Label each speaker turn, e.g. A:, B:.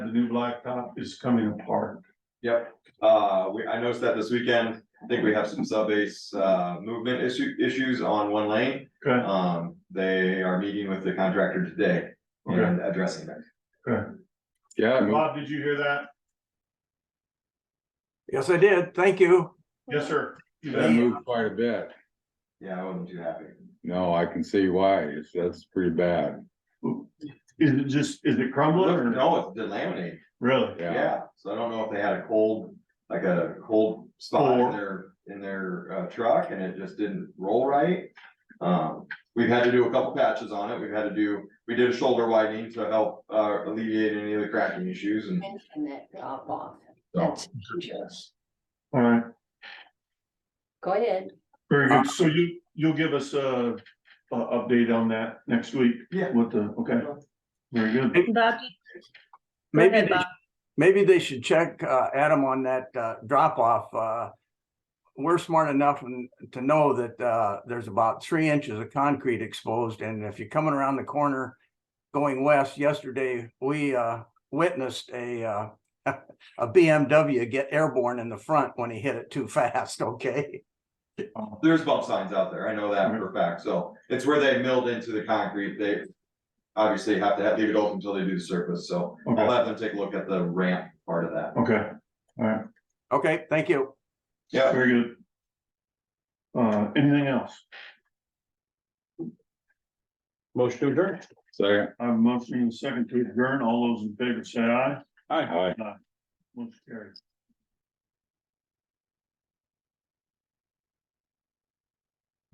A: the new blacktop is coming apart.
B: Uh, we, I noticed that this weekend, I think we have some subbase, uh, movement issue, issues on one lane.
A: Okay,
B: Um, they are meeting with the contractor today and addressing that.
C: Yeah, I mean,
A: Bob, did you hear that?
D: Yes, I did. Thank you.
A: Yes, sir. You
C: that
A: bet.
C: moved quite a bit.
B: Yeah, I wasn't too happy.
C: No, I can see why. It's, that's pretty bad.
A: Is it just, is it crumbling or no?
B: No, it's delaminated,
A: Really?
C: Yeah,
B: yeah. So I don't know if they had a cold, like a cold spot in
A: Or-
B: their, in their, uh, truck and it just didn't roll right. Um, we've had to do a couple patches on it. We've had to do, we did a shoulder widening to help, uh, alleviate any of the cracking issues and.
E: mention that drop off.
B: so.
E: That's dangerous.
A: All right,
E: Go ahead.
A: very good. So you, you'll give us a, a update on that next week?
B: Yeah.
A: What the, okay. Very good.
F: Bob, Go
D: Maybe,
F: ahead,
D: they-
F: Bob.
D: maybe they should check, uh, Adam on that, uh, drop off, uh. We're smart enough n- to know that, uh, there's about three inches of concrete exposed and if you're coming around the corner. Going west yesterday, we, uh, witnessed a, uh, a BMW get airborne in the front when he hit it too fast, okay?
B: There's bump signs out there, I know that for a fact, so it's where they milled into the concrete, they. Obviously have to have- leave it open until they do the surface, so I'll
A: Okay,
B: have them take a look at the ramp part of that.
A: okay,
D: Okay, thank you.
B: Yeah,
A: very good. Uh, anything else?
G: Motion to adjourn.
C: second.
A: I have a motion and a second to adjourn. All those in favor say aye.
C: Hi.
A: Motion carries.